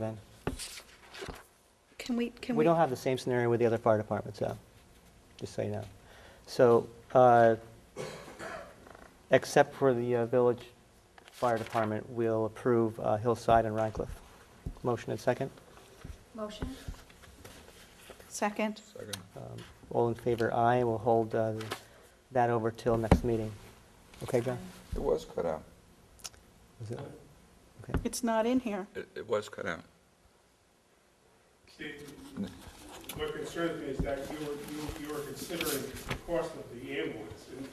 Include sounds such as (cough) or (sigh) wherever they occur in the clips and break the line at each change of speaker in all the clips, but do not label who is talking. then.
Can we, can
We
we,
don't have the same scenario with the other fire departments, though, just so you know. So, uh, except for the uh, village fire department, we'll approve uh, Hillside and Rhinecliff. Motion and second.
Motion?
second?
Second.
Um, All in favor, aye. We'll hold uh, that over till next meeting. Okay, John?
It was cut out.
Is it-
It's not in here.
It, it was cut out.
Steve, what concerns me is that you were, you- you were considering the cost of the ambulance. and-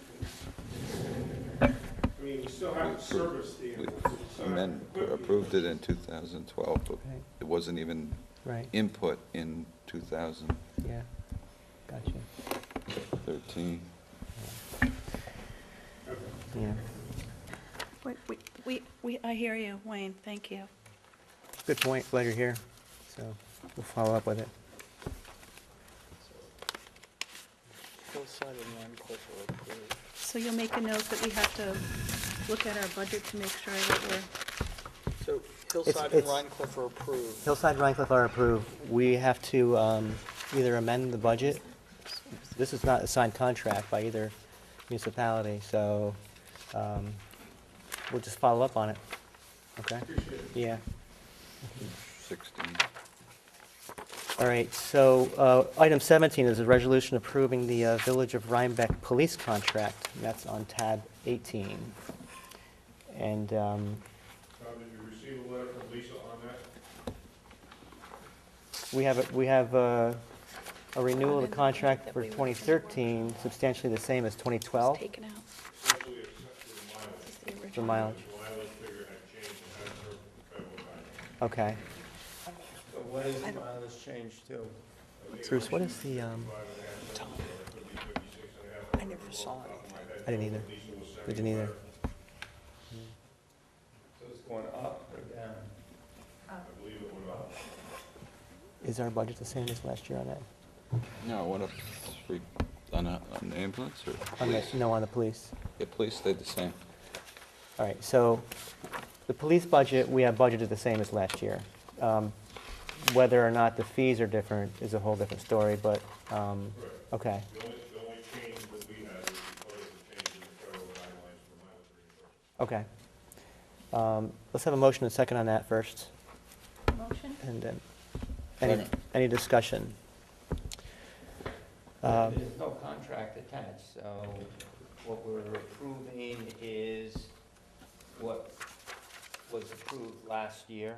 and- I mean, we still have to service the
We
ambulance. we still have to
amend- uh,
equip the
approved it in
ambulance.
2012, but
Right.
it wasn't even
Right,
input in 2013.
yeah. Gotcha.
Okay.
Yeah.
We, we- we, we, I hear you, Wayne, thank you.
Good point. Glad you're here. So we'll follow up with it.
Hillside and Lime Cliff are approved.
So you'll make a note that we have to look at our budget to make sure that we're,
So Hillside and
it's-
Rhine Cliff are approved.
Hillside and Rhinecliff are approved. We have to um, either amend the budget. This is not a signed contract by either municipality, so um, we'll just follow up on it. Okay? Yeah.
16.
All right, so uh, item 17 is a resolution approving the uh, Village of Rhinebeck police contract. And That's on tab 18. And um,
Tom, Uh, did you receive a letter from Lisa on that?
We have, a- we have uh, a renewal of the contract
That
for
we were-
2013, substantially the same as 2012,
it's taken out.
Essentially, except for the mileage.
It's the
the
original.
mileage.
The mileage figure had changed and had her federal guidelines.
Okay.
So what is the mileage change to?
Bruce, what is the, um,
I never saw anything.
I didn't either. I didn't either.
So it's going up or down?
Is our budget the same as last year on that?
No, what up, three, on a, on the ambulance or
On the,
police?
no, on the police.
Yeah, police stayed the same.
All right, so the police budget, we have budgeted the same as last year. Um, Whether or not the fees are different is a whole different story, but, um, okay,
The only, the only change that we had was because of the change in the federal guidelines for mileage
okay.
reimbursement.
Um, Let's have a motion and second on that first.
Motion?
And then, any,
Second.
any discussion? Um,
There's no contract attached, so what we're approving is what was approved last year.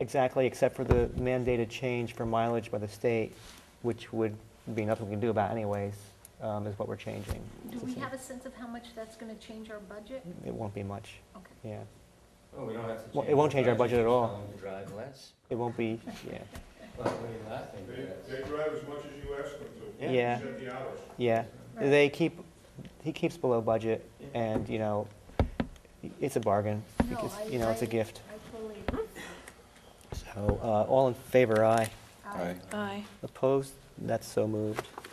Exactly, except for the mandated change for mileage by the state, which would be nothing we can do about anyways, um, is what we're changing.
Do we have a sense of how much that's going to change our budget?
It won't be much,
Okay.
yeah.
Well, oh, we don't have to
Well,
change.
it won't change our budget at all.
Tell them to Drive less.
It won't be,
(laughs)
yeah,
Well, what are you laughing
They,
at?
they drive as much as you ask them to.
Yeah.
Yeah.
Except the hours.
yeah.
Right.
They keep, he keeps below budget, and, you know, it's a bargain.
No,
because,
I-
You know, it's a
I-
gift.
I totally agree.
So, uh, all in favor, aye.
Aye.
Aye.
Opposed? That's so moved. (clears throat)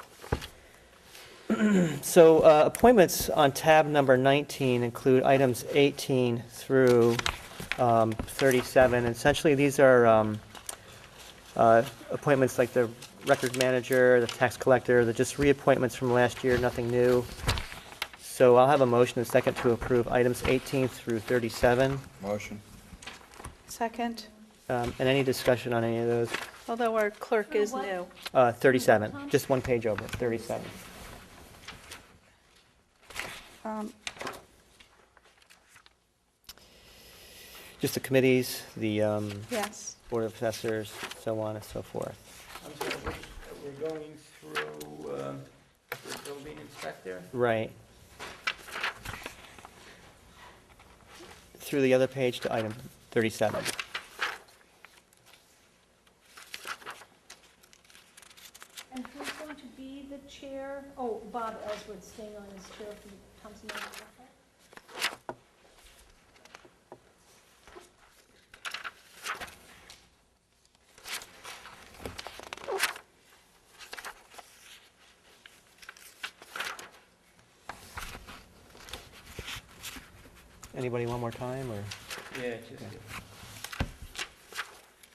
So uh, appointments on tab number 19 include items 18 through um, 37. Essentially, these are um, uh, appointments like the record manager, the tax collector, they're just reappointments from last year, nothing new. So I'll have a motion and second to approve items 18 through 37.
Motion?
Second,
Um, And any discussion on any of those?
although our clerk
Through
is
what?
new.
Uh, 37, just one page over, 37.
Um,
Just the committees, the um,
Yes,
Board of Assessors, so on and so forth.
I'm sorry, which- we're going through, um, the building inspector?
Right. Through the other page to item 37.
And who's going to be the chair? Oh, Bob Ellsworth staying on as chair for the Thompson Manor Waterfront?
Anybody one more time, or?
Yeah, just